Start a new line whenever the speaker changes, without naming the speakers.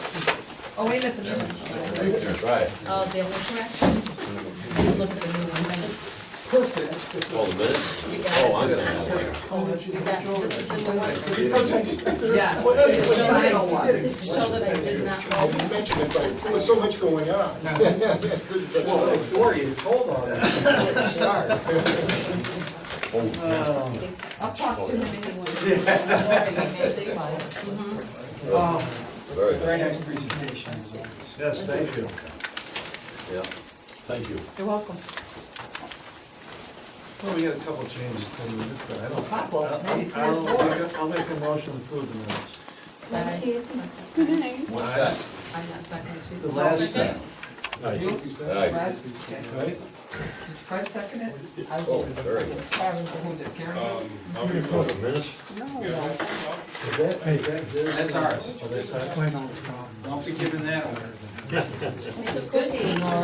Oh, wait a minute, the minutes.
Right there. Right.
Oh, they were correct. Look at the new one minutes.
All the minutes?
You
Oh,
got
I'm
it.
gonna have one.
Yeah, this is the new one.
Yes,
Just
it's
show
the
that I-
final one.
Just show that I did not.
You mentioned it, but there was so much going on.
Well, Dory, you told on it. Didn't start.
I'll talk to him anyway.
Um,
Very good.
Very nice presentation. as always.
Yes, thank you.
Yeah. Thank you.
You're welcome.
Well, we got a couple changes to the, but I don't.
Couple, maybe three or
I'll- I'll
four.
make a- I'll make a motion to approve the minutes.
What's that?
I'm not second. she's-
The last step.
You,
Aye.
Fred, okay.
Right?
Did Fred second it?
Oh, very
Who
good.
did, Karen?
Is that- is that good?
That's ours.
Oh, that's all right.
Don't be giving that away.
It's a Good meeting, Laura.